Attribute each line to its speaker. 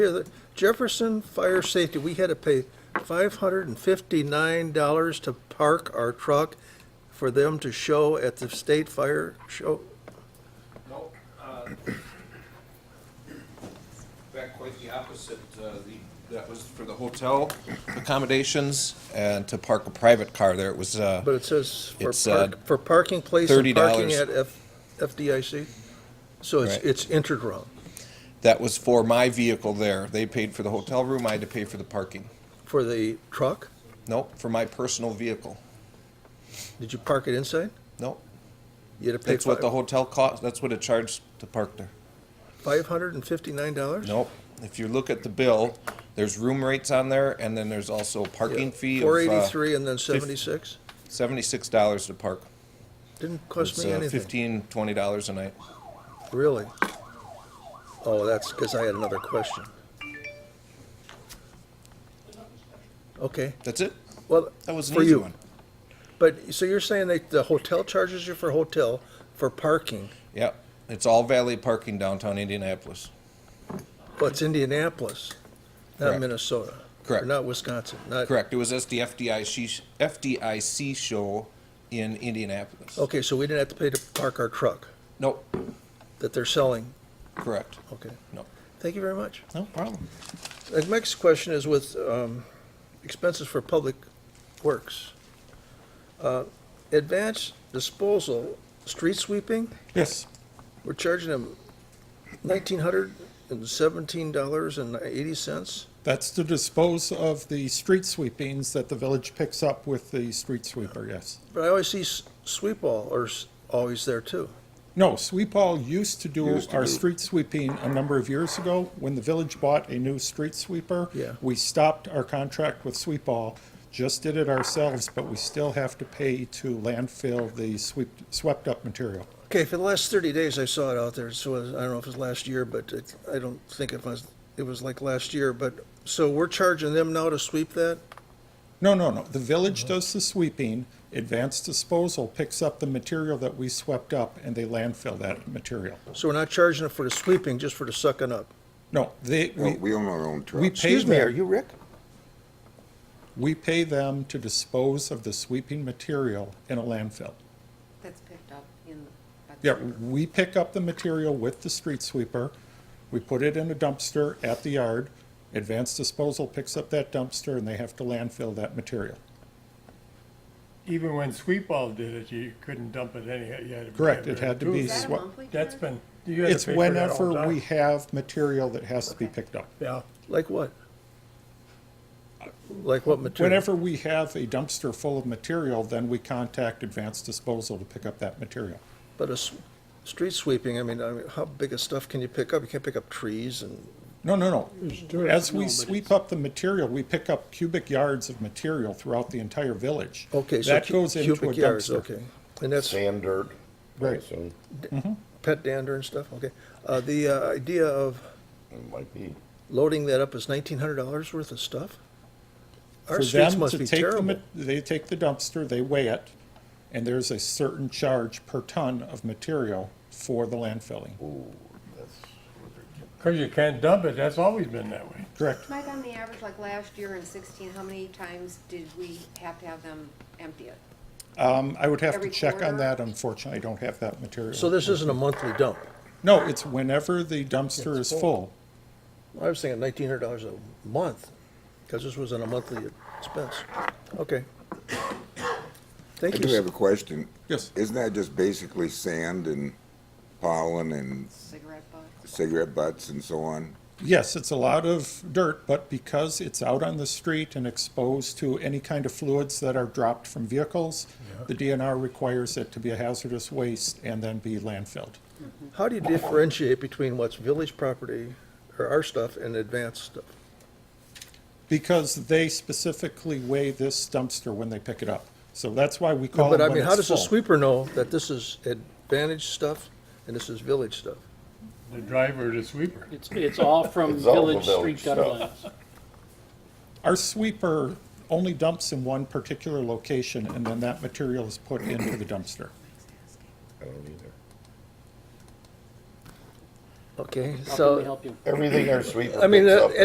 Speaker 1: Here, the Jefferson Fire Safety, we had to pay five hundred and fifty-nine dollars to park our truck for them to show at the state fire show.
Speaker 2: No, uh, in fact, quite the opposite. Uh, the- That was for the hotel accommodations and to park a private car there. It was, uh,
Speaker 1: But it says for
Speaker 2: It's, uh,
Speaker 1: park, for parking place and parking
Speaker 2: $30.
Speaker 1: at F, FDIC. So it's,
Speaker 2: Right.
Speaker 1: it's interground
Speaker 2: that was for my vehicle there. They paid for the hotel room, I had to pay for the parking.
Speaker 1: for the truck.
Speaker 2: Nope, for my personal vehicle.
Speaker 1: Did you park it inside?
Speaker 2: Nope,
Speaker 1: You had to pay
Speaker 2: that's what the hotel cost, that's what it charged to park there.
Speaker 1: five hundred and fifty-nine dollars?
Speaker 2: Nope, if you look at the bill, there's room rates on there and then there's also a parking fee
Speaker 1: Four
Speaker 2: of uh,
Speaker 1: eighty-three and then seventy-six?
Speaker 2: seventy-six dollars to park.
Speaker 1: Didn't cost
Speaker 2: It's
Speaker 1: me
Speaker 2: uh,
Speaker 1: anything,
Speaker 2: fifteen, twenty dollars a night.
Speaker 1: really. Oh, that's because I had another question. Okay,
Speaker 2: That's it.
Speaker 1: well,
Speaker 2: That was an
Speaker 1: for
Speaker 2: easy
Speaker 1: you.
Speaker 2: one.
Speaker 1: But, so you're saying that the hotel charges you for hotel, for parking,
Speaker 2: Yep. It's all valet parking downtown Indianapolis.
Speaker 1: but it's Indianapolis, not
Speaker 2: Correct.
Speaker 1: Minnesota? or
Speaker 2: Correct.
Speaker 1: Not Wisconsin, not?
Speaker 2: Correct. It was at the FDIC, sh- FDIC show in Indianapolis.
Speaker 1: Okay, so we didn't have to pay to park our truck
Speaker 2: Nope.
Speaker 1: that they're selling?
Speaker 2: Correct.
Speaker 1: Okay,
Speaker 2: No.
Speaker 1: thank you very much.
Speaker 2: No problem.
Speaker 1: The next question is with um, expenses for public works. Uh, Advanced disposal, street sweeping,
Speaker 2: Yes.
Speaker 1: we're charging them nineteen hundred and seventeen dollars and eighty cents.
Speaker 3: That's to dispose of the street sweepings that the village picks up with the street sweeper, yes.
Speaker 1: But I always see s- sweep all or s- always there too.
Speaker 3: No, Sweep All used to do
Speaker 4: Used to
Speaker 3: our
Speaker 4: do.
Speaker 3: street sweeping a number of years ago. When the village bought a new street sweeper,
Speaker 1: Yeah.
Speaker 3: we stopped our contract with Sweep All, just did it ourselves, but we still have to pay to landfill the sweep, swept up material.
Speaker 1: Okay, for the last thirty days I saw it out there, so I don't know if it was last year, but it, I don't think it was, it was like last year, but, so we're charging them now to sweep that?
Speaker 3: No, no, no. The village
Speaker 4: Uh-huh.
Speaker 3: does the sweeping. Advanced Disposal picks up the material that we swept up and they landfill that material.
Speaker 1: So we're not charging them for the sweeping, just for the sucking up?
Speaker 3: No, they,
Speaker 4: No,
Speaker 3: we,
Speaker 4: we own our own trucks.
Speaker 3: we pay
Speaker 4: Excuse me,
Speaker 3: them.
Speaker 4: are you Rick?
Speaker 3: We pay them to dispose of the sweeping material in a landfill.
Speaker 5: That's picked up in the.
Speaker 3: Yeah, we pick up the material with the street sweeper, we put it in a dumpster at the yard, advanced disposal picks up that dumpster, and they have to landfill that material.
Speaker 6: even when Sweet Ball did it, you couldn't dump it anyhow. You had to.
Speaker 3: Correct, it had to
Speaker 6: do
Speaker 3: be
Speaker 6: it.
Speaker 5: Is that a
Speaker 3: swa-
Speaker 5: monthly charge?
Speaker 6: That's been, you had to
Speaker 3: It's
Speaker 6: pay for that all the
Speaker 3: whenever we
Speaker 6: time.
Speaker 3: have material that has to be picked up.
Speaker 6: Yeah,
Speaker 1: Like what? Like what material?
Speaker 3: Whenever we have a dumpster full of material, then we contact advanced disposal to pick up that material.
Speaker 1: But a s- street sweeping, I mean, I mean, how big of stuff can you pick up? You can't pick up trees and,
Speaker 3: No, no, no. As we sweep up the material, we pick up cubic yards of material throughout the entire village.
Speaker 1: okay, so
Speaker 3: That
Speaker 1: cu-
Speaker 3: goes into a
Speaker 1: cubic yards,
Speaker 3: dumpster.
Speaker 1: okay. And that's
Speaker 4: Sand, dirt.
Speaker 3: Right.
Speaker 4: So,
Speaker 1: pet dander and stuff, okay. Uh, the uh, idea of
Speaker 4: it might be.
Speaker 1: loading that up is nineteen hundred dollars worth of stuff? Our
Speaker 3: For
Speaker 1: streets
Speaker 3: them
Speaker 1: must
Speaker 3: to
Speaker 1: be
Speaker 3: take the
Speaker 1: terrible.
Speaker 3: ma- They take the dumpster, they weigh it, and there's a certain charge per ton of material for the landfilling.
Speaker 6: because you can't dump it. That's always been that way.
Speaker 3: Correct.
Speaker 5: Mike, on the average, like last year in sixteen, how many times did we have to have them empty it?
Speaker 3: Um, I would have to
Speaker 5: Every
Speaker 3: check on
Speaker 5: quarter?
Speaker 3: that. Unfortunately, I don't have that material.
Speaker 1: So this isn't a monthly dump.
Speaker 3: No, it's whenever the dumpster is
Speaker 1: It's
Speaker 3: full.
Speaker 1: I was thinking nineteen hundred dollars a month, because this wasn't a monthly expense. Okay.
Speaker 4: I
Speaker 1: Thank you.
Speaker 4: do have a question.
Speaker 3: Yes.
Speaker 4: Isn't that just basically sand and pollen and
Speaker 5: Cigarette butts?
Speaker 4: cigarette butts and so on?
Speaker 3: Yes, it's a lot of dirt, but because it's out on the street and exposed to any kind of fluids that are dropped from vehicles, the DNR requires it to be a hazardous waste and then be landfilled.
Speaker 1: How do you differentiate between what's village property or our stuff and advanced stuff?
Speaker 3: Because they specifically weigh this dumpster when they pick it up. So that's why we call it
Speaker 1: But I
Speaker 3: when
Speaker 1: mean, how
Speaker 3: it's
Speaker 1: does a
Speaker 3: full.
Speaker 1: sweeper know that this is advantage stuff and this is village stuff?
Speaker 6: The driver, the sweeper.
Speaker 7: It's, it's all from
Speaker 8: It's all the
Speaker 7: village
Speaker 8: village
Speaker 7: street gutter
Speaker 8: stuff.
Speaker 7: lines.
Speaker 3: Our sweeper only dumps in one particular location and then that material is put into the dumpster.
Speaker 1: Okay,
Speaker 7: How can we
Speaker 1: so,
Speaker 7: help you?
Speaker 8: Everything our sweeper
Speaker 1: I mean,
Speaker 8: picks
Speaker 1: uh,
Speaker 8: up,